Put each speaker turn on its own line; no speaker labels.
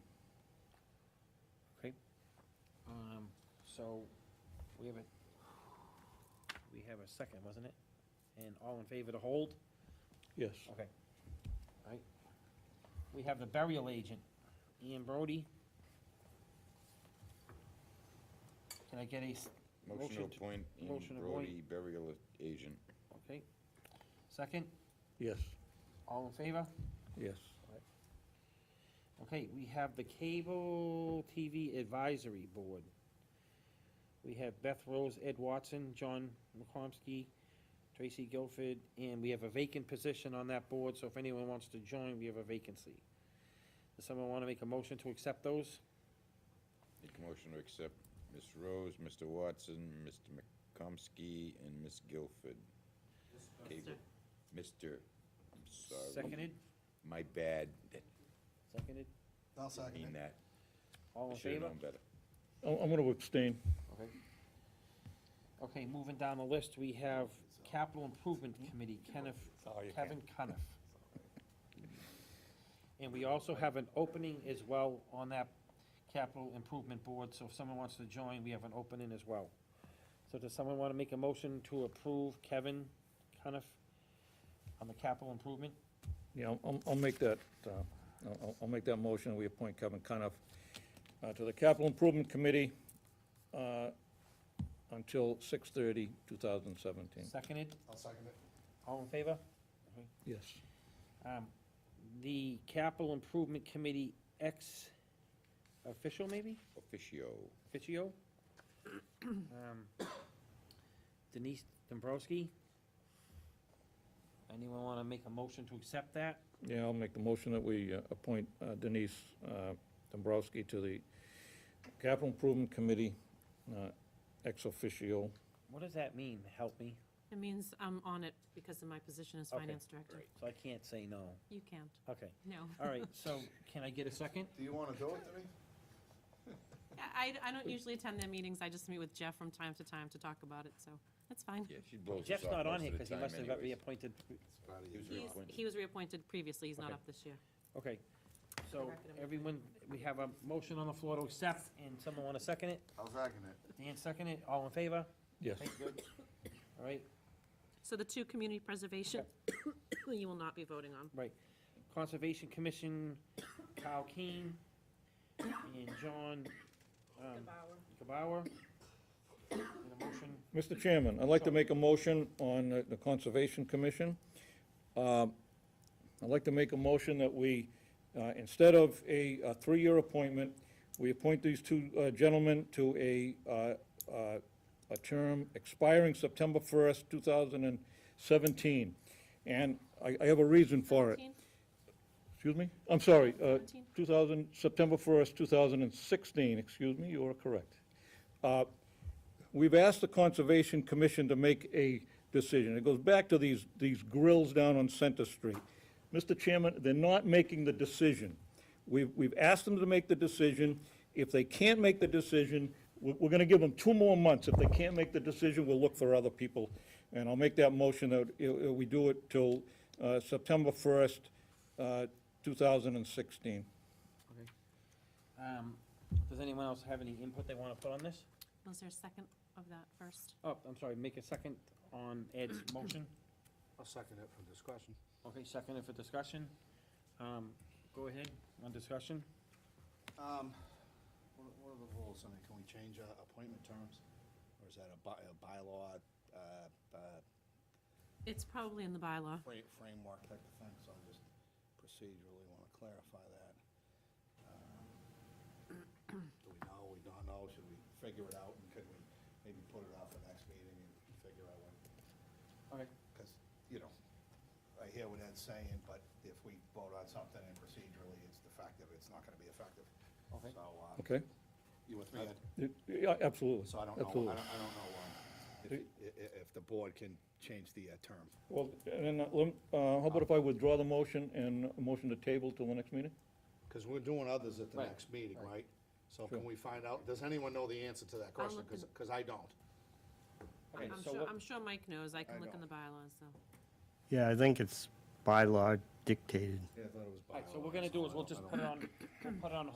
Um, So we have a, we have a second, wasn't it? And all in favor to hold?
Yes.
Okay. All right. We have the burial agent, Ian Brody. Can I get a, s-
Motion to
Motion to-
appoint Ian
motion to appoint-
Brody burial agent.
okay, second?
Yes,
All in favor?
yes.
Okay, we have the Cable TV Advisory Board. We have Beth Rose, Ed Watson, John McComsky, Tracy Guilford, and we have a vacant position on that board, so if anyone wants to join, we have a vacancy. Does someone want to make a motion to accept those?
Make a motion to accept Ms. Rose, Mr. Watson, Mr. McComsky, and Ms. Guilford. Cable. Mr., I'm sorry.
Seconded?
My bad,
Seconded?
I'll
I mean
second it.
that.
All
I
in
should've
favor?
known better.
I'm, I'm gonna abstain.
Okay, moving down the list, we have Capital Improvement Committee, Kenneth, Kevin Cuniff. And we also have an opening as well on that Capital Improvement Board, so if someone wants to join, we have an opening as well. So does someone want to make a motion to approve Kevin Cuniff on the capital improvement?
Yeah, I'll- I'll, I'll make that, uh, I'll- I'll, I'll make that motion, we appoint Kevin Cuniff uh, to the Capital Improvement Committee uh, until 6:30, 2017.
Seconded,
I'll second it.
all in favor?
Yes.
Um, The Capital Improvement Committee ex-official, maybe?
Officio.
Fitchio. Um, Denise Dombrowski. Anyone want to make a motion to accept that?
Yeah, I'll make the motion that we uh, appoint uh, Denise uh, Dombrowski to the Capital Improvement Committee, uh, ex officio.
What does that mean, help me?
It means I'm on it because of my position as
Okay,
finance director.
So I can't say no.
You can't,
Okay,
no.
all right, so can I get a second?
Do you wanna do it, Denise?
I, I don't usually attend their meetings, I just meet with Jeff from time to time to talk about it, so that's fine.
Yeah, she blows us
Jeff's
off
not on
most
here
of the
because he
time
must have got
anyways.
reappointed.
It's part of
He
you.
was
He's,
reappointed.
he was reappointed previously, he's not
Okay.
up this year.
Okay,
For the
so
record, I'm-
everyone, we have a motion on the floor to accept, and someone want to second it?
I'll second it.
Dan second it, all in favor?
Yes.
Okay, good. All right,
So the two community preservation, you will not be voting on.
Conservation Commission, Kyle Keen, and John, um, Kabauer. Need a motion?
Mr. Chairman, I'd like to make a motion on the- the Conservation Commission. Um, I'd like to make a motion that we, uh, instead of a uh, three-year appointment, we appoint these two uh, gentlemen to a, uh, uh, a term expiring September 1st, 2017. And I I have a reason for it.
Seventeen?
Excuse me? I'm sorry, uh,
17?
2000, September 1st, 2016, excuse me, you are correct. Uh, We've asked the Conservation Commission to make a decision. It goes back to these, these grills down on Center Street. Mr. Chairman, they're not making the decision. We've, we've asked them to make the decision. If they can't make the decision, we're, we're gonna give them two more months. If they can't make the decision, we'll look for other people. And I'll make that motion that uh, uh, we do it till uh, September 1st, uh, 2016.
Um, does anyone else have any input they wanna put on this?
Was there a second of that first?
Oh, I'm sorry, make a second on Ed's motion.
I'll second it for discussion.
Okay, second for discussion. Um, go ahead, on discussion.
Um, what, are- what are the rules? I mean, can we change, uh, appointment terms? Or is that a by, a bylaw, uh, uh,
It's probably in the bylaw.
fra- framework type of thing? So I just procedurally wanna clarify that. Um, Do we know, we don't know? Should we figure it out? And could we maybe put it off the next meeting and figure out what
Alright,
because, you know, I hear what Ed's saying, but if we vote on something and procedurally it's defective, it's not gonna be effective.
Okay.
So, uh,
Okay?
you with me, Ed?
Yeah, Absolutely.
So I don't know, I don't,
Absolutely.
I don't know, um, if, i- i- if the board can change the uh, term.
Well, and then, uh, lem- uh, how about if I withdraw the motion and a motion to table till the next meeting?
Because we're doing others at the
Right,
next meeting,
right.
right? So can we find out, does anyone know the answer to that question?
look
Because,
in-
I don't.
okay,
I'm
so
sure,
what,
I'm sure Mike knows, I
I
can look in
know.
the bylaws, so.
Yeah, I think it's by law dictated.
Yeah, I thought it was
alright, so what we're gonna do is we'll just put it on, we'll put it on